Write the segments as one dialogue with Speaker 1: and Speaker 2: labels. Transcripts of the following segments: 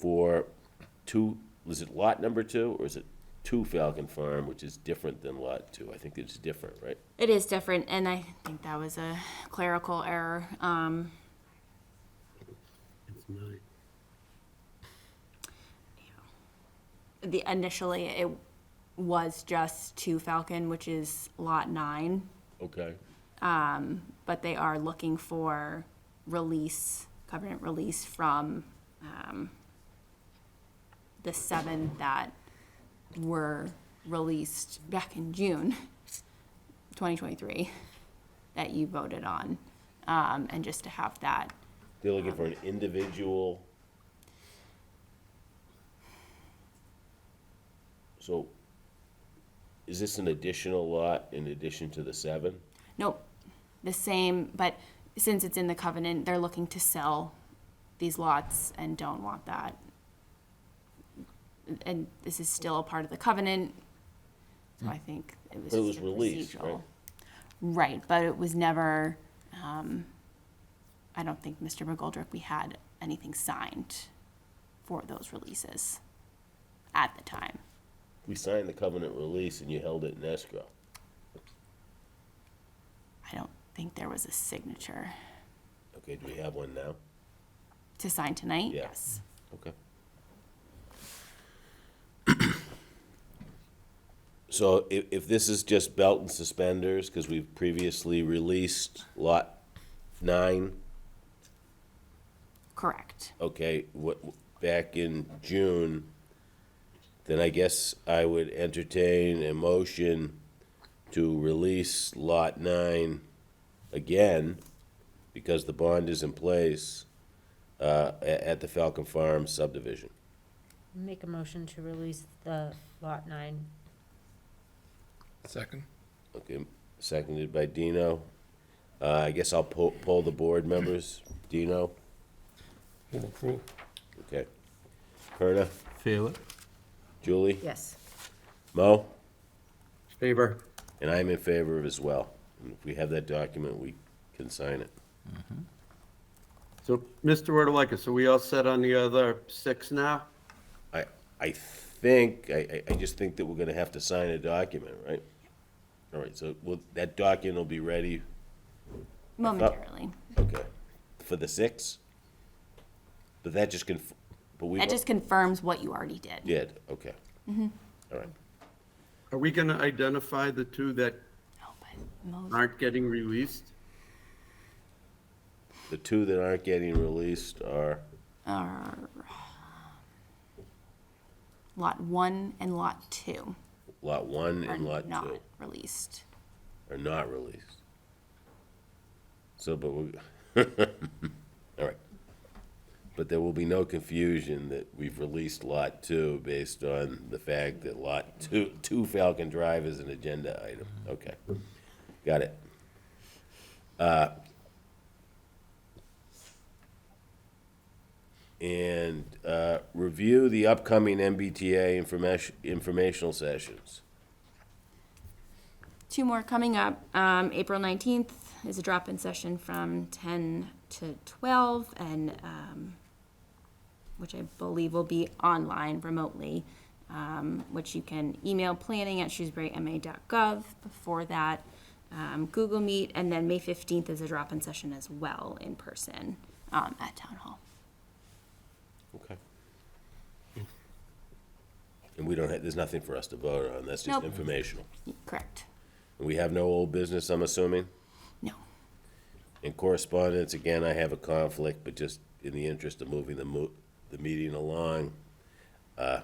Speaker 1: for two, was it lot number two, or is it two Falcon Farm, which is different than lot two? I think it's different, right?
Speaker 2: It is different, and I think that was a clerical error. Um,
Speaker 3: It's nine.
Speaker 2: the initially it was just two Falcon, which is lot nine,
Speaker 1: Okay.
Speaker 2: but they are looking for release covenant release from um, the seven that were released back in June, 2023, that you voted on, um, and just to have that
Speaker 1: They're looking for an individual. So is this an additional lot in addition to the seven?
Speaker 2: Nope, the same, but since it's in the covenant, they're looking to sell these lots and don't want that. And this is still a part of the covenant, so I think it was
Speaker 1: But it was
Speaker 2: just a
Speaker 1: released, right?
Speaker 2: procedural. Right, but it was never, um, I don't think, Mr. McGoldrick, we had anything signed for those releases at the time.
Speaker 1: We signed the covenant release and you held it in escrow.
Speaker 2: I don't think there was a signature
Speaker 1: Okay, do we have one now?
Speaker 2: to sign tonight,
Speaker 1: Yeah.
Speaker 2: yes.
Speaker 1: Okay. So if, if this is just belt and suspenders, because we've previously released lot nine,
Speaker 2: Correct.
Speaker 1: okay, what, back in June, then I guess I would entertain a motion to release lot nine again, because the bond is in place, uh, a- at the Falcon Farm subdivision.
Speaker 4: Make a motion to release the lot nine.
Speaker 5: Second.
Speaker 1: Okay, seconded by Dino. Uh, I guess I'll po- poll the board members. Dino?
Speaker 5: Move approve.
Speaker 1: Okay. Perna?
Speaker 5: Favor.
Speaker 1: Julie?
Speaker 4: Yes.
Speaker 1: Mo?
Speaker 3: Favor.
Speaker 1: And I'm in favor of as well. And if we have that document, we can sign it.
Speaker 3: So, Mr. Rotalakis, are we all set on the other six now?
Speaker 1: I, I think, I, I- I just think that we're gonna have to sign a document, right? All right, so will, that document will be ready,
Speaker 2: Momentarily.
Speaker 1: okay, for the six? But that just can, but we,
Speaker 2: That just confirms what you already did.
Speaker 1: yeah, okay. All right.
Speaker 3: Are we gonna identify the two that
Speaker 2: No, Oh, but most-
Speaker 3: aren't getting released?
Speaker 1: The two that aren't getting released are,
Speaker 2: are uh, Lot one and lot two
Speaker 1: Lot one
Speaker 2: are
Speaker 1: and lot
Speaker 2: not
Speaker 1: two
Speaker 2: released.
Speaker 1: are not released. So, but we, all right. But there will be no confusion that we've released lot two based on the fact that lot two, two Falcon Drive is an agenda item. Okay, got it. Uh, And, uh, review the upcoming MBTA information, informational sessions.
Speaker 2: Two more coming up. Um, April nineteenth is a drop-in session from ten to twelve and, um, which I believe will be online remotely, um, which you can email planning at shrewsburyma.gov before that, um, Google Meet, and then May fifteenth is a drop-in session as well in person, um, at Town Hall.
Speaker 1: Okay. Hmm. And we don't, have- there's nothing for us to vote on, that's just
Speaker 2: Nope.
Speaker 1: informational.
Speaker 2: Correct?
Speaker 1: And we have no old business, I'm assuming?
Speaker 2: No.
Speaker 1: In correspondence, again, I have a conflict, but just in the interest of moving the mo- the meeting along, uh,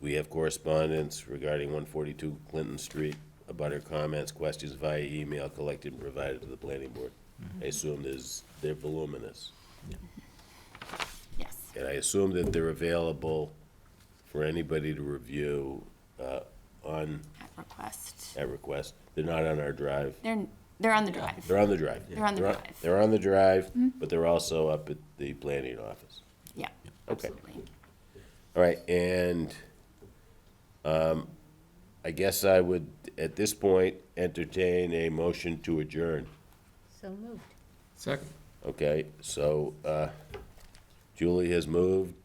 Speaker 1: we have correspondence regarding one forty-two Clinton Street, about her comments, questions via email collected and provided to the planning board. I assume there's, they're voluminous.
Speaker 2: Yes.
Speaker 1: And I assume that they're available for anybody to review uh, on,
Speaker 2: At request.
Speaker 1: at request. They're not on our drive.
Speaker 2: They're, they're on the drive.
Speaker 1: They're on the drive.
Speaker 2: They're on the drive.
Speaker 1: They're on the drive, but they're also up at the planning office.
Speaker 2: Yeah,
Speaker 1: Okay.
Speaker 2: absolutely.
Speaker 1: All right, and um, I guess I would, at this point, entertain a motion to adjourn.
Speaker 4: So moved.
Speaker 5: Second.
Speaker 1: Okay, so uh, Julie has moved.